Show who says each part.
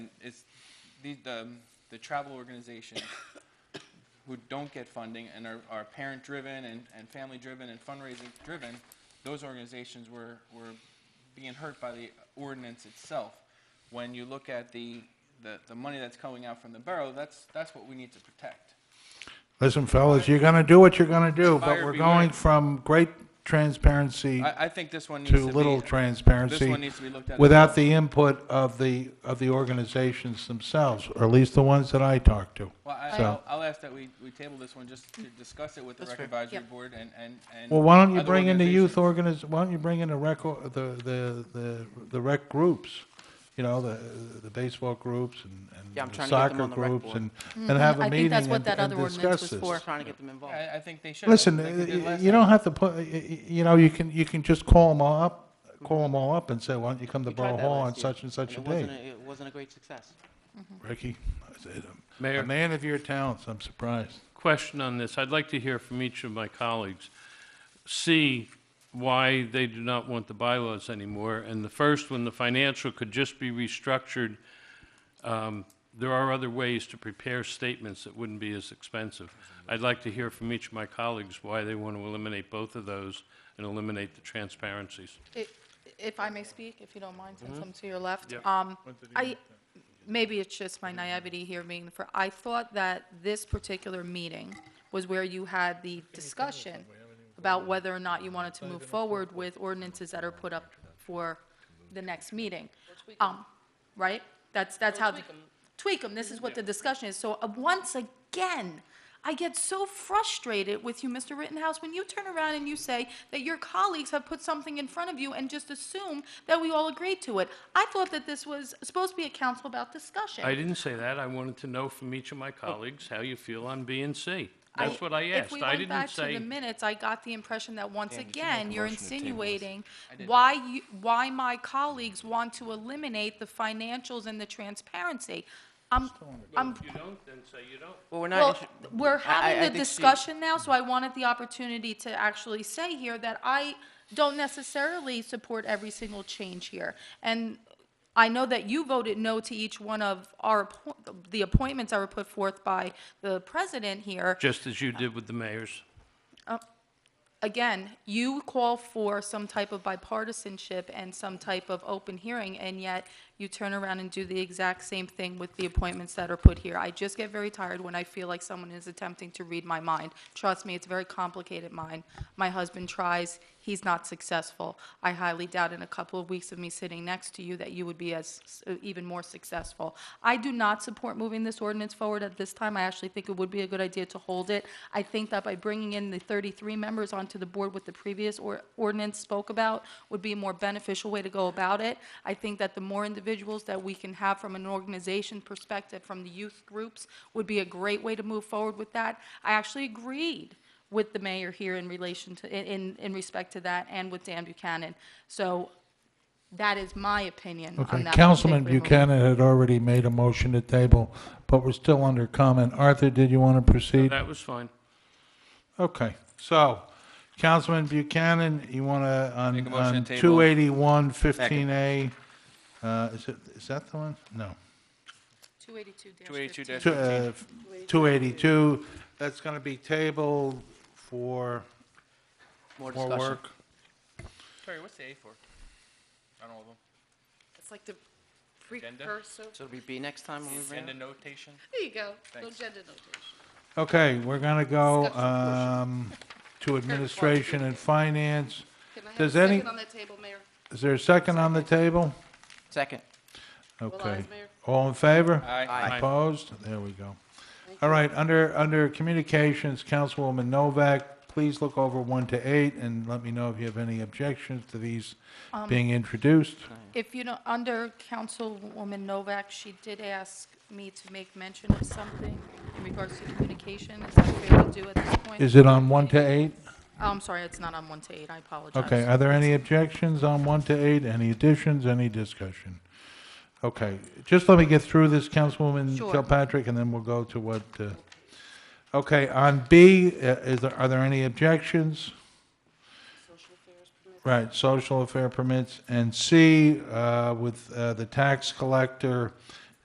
Speaker 1: It's the, the, um, the travel organizations who don't get funding and are, are parent-driven and, and family-driven and fundraising-driven, those organizations were, were being hurt by the ordinance itself. When you look at the, the, the money that's coming out from the borough, that's, that's what we need to protect.
Speaker 2: Listen, fellas, you're gonna do what you're gonna do, but
Speaker 1: Buyer
Speaker 2: we're
Speaker 1: beware.
Speaker 2: going from great transparency
Speaker 1: I, I think this one needs to
Speaker 2: to
Speaker 1: be.
Speaker 2: little transparency
Speaker 1: needs to be looked at as
Speaker 2: without
Speaker 1: well.
Speaker 2: the input of the, of the organizations themselves, or at least the ones that I talk to.
Speaker 1: Well, I,
Speaker 2: So-
Speaker 1: I'll, I'll ask that we, we table this one just to discuss it with the rec advisory
Speaker 3: Yep.
Speaker 1: board and, and, and.
Speaker 2: Well, why don't you
Speaker 1: other
Speaker 2: bring in the youth
Speaker 1: organizations.
Speaker 2: organiz, why don't you bring in the rec, or- the, the, the, the rec groups? You know, the, the baseball groups and-
Speaker 3: Yeah, I'm
Speaker 2: and the
Speaker 3: trying to get them
Speaker 2: soccer
Speaker 3: on the rec
Speaker 2: groups
Speaker 3: board.
Speaker 2: and, and have
Speaker 4: Mm-hmm. I
Speaker 2: a
Speaker 4: think
Speaker 2: meeting
Speaker 4: that's
Speaker 2: and
Speaker 4: what that
Speaker 2: and
Speaker 4: other ordinance
Speaker 2: discuss
Speaker 4: was
Speaker 2: this.
Speaker 4: for.
Speaker 3: trying to get them involved.
Speaker 4: Uh,
Speaker 1: I, I think they should.
Speaker 2: Listen,
Speaker 1: like they did
Speaker 2: y- y-
Speaker 1: last
Speaker 2: you
Speaker 1: time.
Speaker 2: don't have to put, y- y- you know, you can, you can just call them all up, call them all up and say, why don't you come to
Speaker 3: We tried
Speaker 2: Borough
Speaker 3: that
Speaker 2: Hall on
Speaker 3: last year,
Speaker 2: such and such a
Speaker 3: it wasn't
Speaker 2: day?
Speaker 3: It wasn't a great success.
Speaker 2: Ricky, I said, um, a
Speaker 5: Mayor.
Speaker 2: man of your talents, I'm surprised.
Speaker 5: question on this. I'd like to hear from each of my colleagues. C, why they do not want the bylaws anymore. And the first one, the financial could just be restructured. Um, There are other ways to prepare statements that wouldn't be as expensive. I'd like to hear from each of my colleagues why they want to eliminate both of those and eliminate the transparencies.
Speaker 4: I- If I may speak, if you don't mind, since
Speaker 2: Mm-hmm.
Speaker 4: I'm to your left.
Speaker 5: Yep.
Speaker 4: Um, I, maybe it's just my naivety here being, the fir- I thought that this particular meeting was where you had the discussion about whether or not you wanted to move forward with ordinances that are put up for the next meeting. Um, Right? That's, that's how, the- tweak them, this is what the discussion is. So uh, once again, I get so frustrated with you, Mr. Rittenhouse, when you turn around and you say that your colleagues have put something in front of you and just assume that we all agreed to it. I thought that this was supposed to be a council about discussion.
Speaker 5: I didn't say that. I wanted to know from each of my colleagues how you feel on B and C.
Speaker 4: I-
Speaker 5: That's what I asked. I
Speaker 4: If we went
Speaker 5: didn't
Speaker 4: back to
Speaker 5: say.
Speaker 4: the minutes, I got the impression that once again, you're insinuating
Speaker 1: did.
Speaker 4: why you, why my colleagues want to eliminate the financials and the transparency. I'm, I'm
Speaker 5: You don't, then say you don't.
Speaker 3: Well, we're
Speaker 4: Well,
Speaker 3: not, inter-
Speaker 4: we're
Speaker 3: I
Speaker 4: having
Speaker 3: think
Speaker 4: the
Speaker 3: she-
Speaker 4: discussion now, so I wanted the opportunity to actually say here that I don't necessarily support every single change here. And I know that you voted no to each one of our, appo- the appointments that were put forth by the president here.
Speaker 5: Just as you did with the mayors.
Speaker 4: Again, you call for some type of bipartisanship and some type of open hearing, and yet you turn around and do the exact same thing with the appointments that are put here. I just get very tired when I feel like someone is attempting to read my mind. Trust me, it's a very complicated mind. My husband tries, he's not successful. I highly doubt in a couple of weeks of me sitting next to you that you would be as, even more successful. I do not support moving this ordinance forward at this time. I actually think it would be a good idea to hold it. I think that by bringing in the 33 members onto the board with the previous or- ordinance spoke about would be a more beneficial way to go about it. I think that the more individuals that we can have from an organization perspective, from the youth groups, would be a great way to move forward with that. I actually agreed with the mayor here in relation to, in- in, in respect to that, and with Dan Buchanan. So that is my opinion on that.
Speaker 2: Okay, Councilman
Speaker 4: particular move.
Speaker 2: Buchanan had already made a motion to table, but we're still under comment. Arthur, did you want to proceed?
Speaker 5: That was fine.
Speaker 2: Okay, so, Councilman Buchanan, you want to,
Speaker 1: Make a
Speaker 2: on,
Speaker 1: motion
Speaker 2: on
Speaker 1: to table.
Speaker 2: 281, 15A, uh, is it, is that the one? No.
Speaker 4: 282-15.
Speaker 2: Two- uh, 282, that's going to be tabled for
Speaker 3: more
Speaker 2: more
Speaker 3: discussion.
Speaker 2: work.
Speaker 1: Terry, what's the A for? I don't know.
Speaker 6: It's like the
Speaker 1: Agenda?
Speaker 6: precursor.
Speaker 3: So it'll be B next time when we bring it
Speaker 1: Agenda
Speaker 3: up?
Speaker 1: notation?
Speaker 6: There you go. No
Speaker 1: Thanks.
Speaker 6: gender notation.
Speaker 2: Okay, we're going to go
Speaker 6: Discussion portion.
Speaker 2: um, to Administration and Finance.
Speaker 6: Can I have a
Speaker 2: Does any,
Speaker 6: second on that table, Mayor?
Speaker 2: is there a second on the table?
Speaker 3: Second.
Speaker 2: Okay.
Speaker 6: eyes, Mayor.
Speaker 2: All in favor?
Speaker 1: Aye.
Speaker 5: Aye.
Speaker 2: Opposed? There we go. All right, under, under Communications, Councilwoman Novak, please look over 1 to 8 and let me know if you have any objections to these
Speaker 6: Um,
Speaker 2: being introduced.
Speaker 4: If you know, under Councilwoman Novak, she did ask me to make mention of something in regards to communication. Is that fair to do at this point?
Speaker 2: Is it on 1 to 8?
Speaker 4: Oh, I'm sorry, it's not on one to eight, I apologize.
Speaker 2: Okay, are there any objections on 1 to 8? Any additions, any discussion? Okay, just let me get through this, Councilwoman
Speaker 4: Sure.
Speaker 2: Kilpatrick, and then we'll go to what, uh, okay, on B, uh, is there, are there any objections? Right, social affair permits, and C, uh, with uh, the tax collector